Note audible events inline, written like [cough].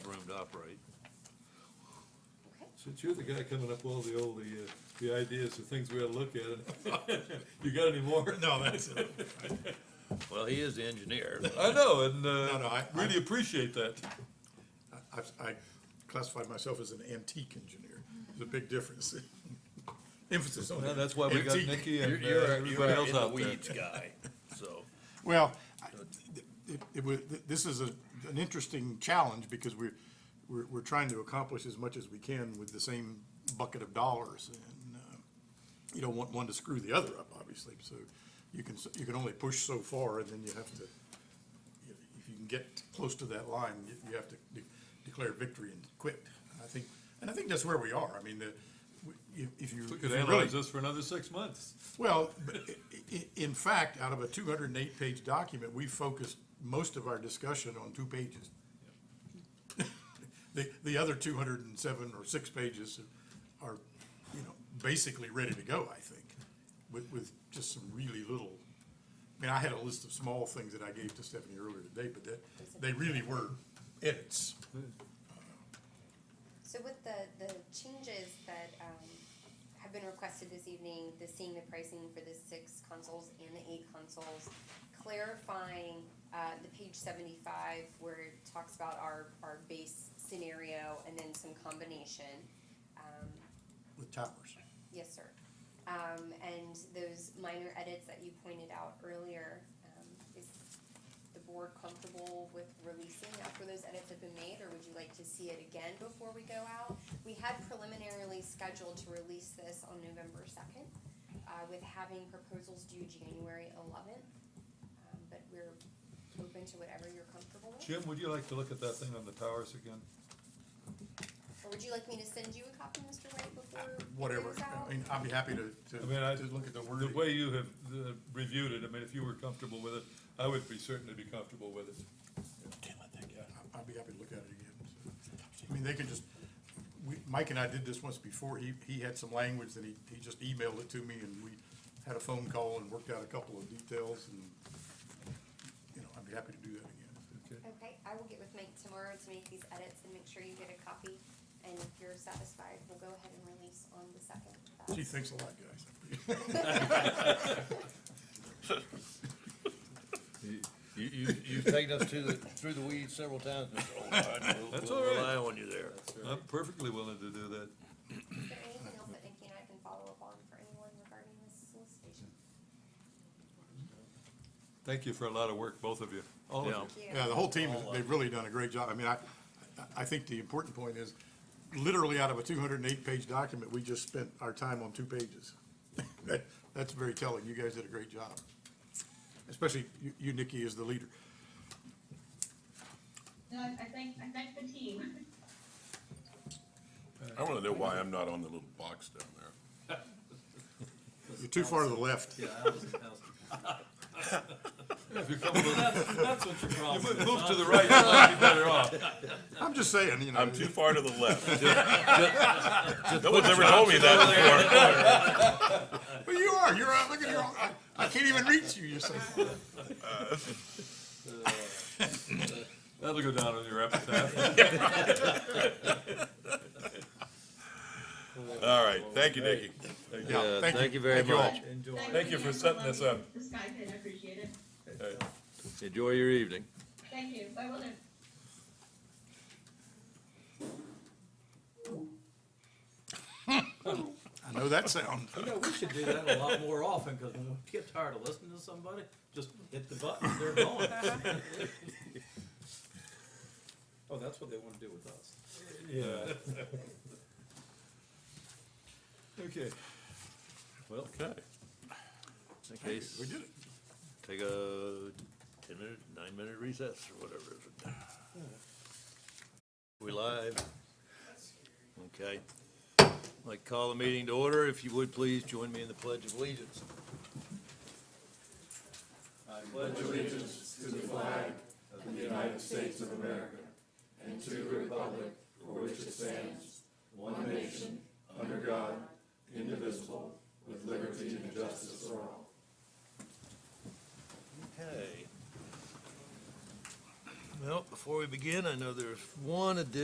to operate. Okay. Since you're the guy coming up with all the old, the, uh, the ideas, the things we ought to look at, [laughs] you got any more? No, that's, it. Well, he is the engineer. I know, and, No, no, uh, I- really appreciate that. I, I classified myself as an antique engineer. There's a big difference. [laughs] Emphasis on Well, that's why we got antique. Nikki You're, and uh, you're, a- you're everybody a else in the out there. weeds guy, so. Well, I- it, it was, this is a, an interesting challenge because we're, we're, we're trying to accomplish as much as we can with the same bucket of dollars. And, uh, you don't want one to screw the other up, obviously, so you can, s- you can only push so far and then you have to, you know, if you can get close to that line, you, you have to de- declare victory and quit. I think, and I think that's where we are. I mean, the, we- if, if you. We if could you really- analyze this for another six months. well, but i- i- in fact, out of a two hundred and eight page document, we focused most of our discussion on two pages. [laughs] The, the other two hundred and seven or six pages are, you know, basically ready to go, I think, with, with just some really little. I mean, I had a list of small things that I gave to Stephanie earlier today, but that, they really were edits. So with the, the changes that, um, have been requested this evening, the seeing the pricing for the six consoles and the eight consoles, clarifying, uh, the page seventy-five where it talks about our, our base scenario and then some combination. Um, With towers. Yes, sir. Um, and those minor edits that you pointed out earlier, um, is the board comfortable with releasing after those edits have been made, or would you like to see it again before we go out? We had preliminarily scheduled to release this on November second, uh, with having proposals due January eleventh. Um, but we're open to whatever you're comfortable with, Jim, would you like to look at that thing on the towers again? or would you like me to send you a copy, Mr. White, before it Whatever. goes I out? mean, I'd be happy to, I mean, I- to, to look at the The wording. way you have uh, reviewed it, I mean, if you were comfortable with it, I would be certainly be comfortable with it. I- I'd be happy to look at it again. I mean, they can just, we, Mike and I did this once before, he, he had some language and he, he just emailed it to me and we had a phone call and worked out a couple of details and, you know, I'd be happy to do that again. Okay. Okay, I will get with Mike tomorrow to make these edits and make sure you get a copy. And if you're satisfied, we'll go ahead and release on the second. Gee, thanks a lot, guys. You, you, you've taken us to the, through the weeds several times, [laughs] Mr. Old. That's all right. Rely on you there. I'm perfectly willing to do that. Is there anything else that Nikki and I can follow up on for anyone regarding this solicitation? Thank you for a lot of work, both of you, all of Yeah. you. Thank you. Yeah, the whole team, they've really done a great job. I mean, I, I- I think the important point is, literally out of a two hundred and eight page document, we just spent our time on two pages. [laughs] That, that's very telling. You guys did a great job. Especially you- you, Nikki, as the leader. No, I, I thank, I thank the team. I wanna know why I'm not on the little box down there. You're too far to the left. Yeah, I was, I was, If you come over, that's, that's what your problem is. move move to the right, you might be better off. I'm just saying, you know. I'm too far to the left. No one's ever told me that before. But you are, you're out, look at your, I, I can't even reach you, you're so far. Uh, That'll go down on your epitaph. Uh, All right, thank you, Nikki. Yeah, Uh, thank you very Thank you all. much. Enjoy. Thank you for setting this up. The sky pit, I appreciate it. Enjoy your evening. Thank you, I will do. I know that sound. You know, we should do that a lot more often, because when we get tired of listening to somebody, just hit the button, they're going. [laughs] Oh, that's what they wanna do with us. Yeah. [laughs] Okay. Well, Okay. Okay, s- We did it. take a ten-minute, nine-minute recess or whatever. it is. We live? Okay. I'd Like, to call the meeting to order. If you would, please join me in the Pledge of Allegiance. Okay. Well, before we begin, I know there's one addition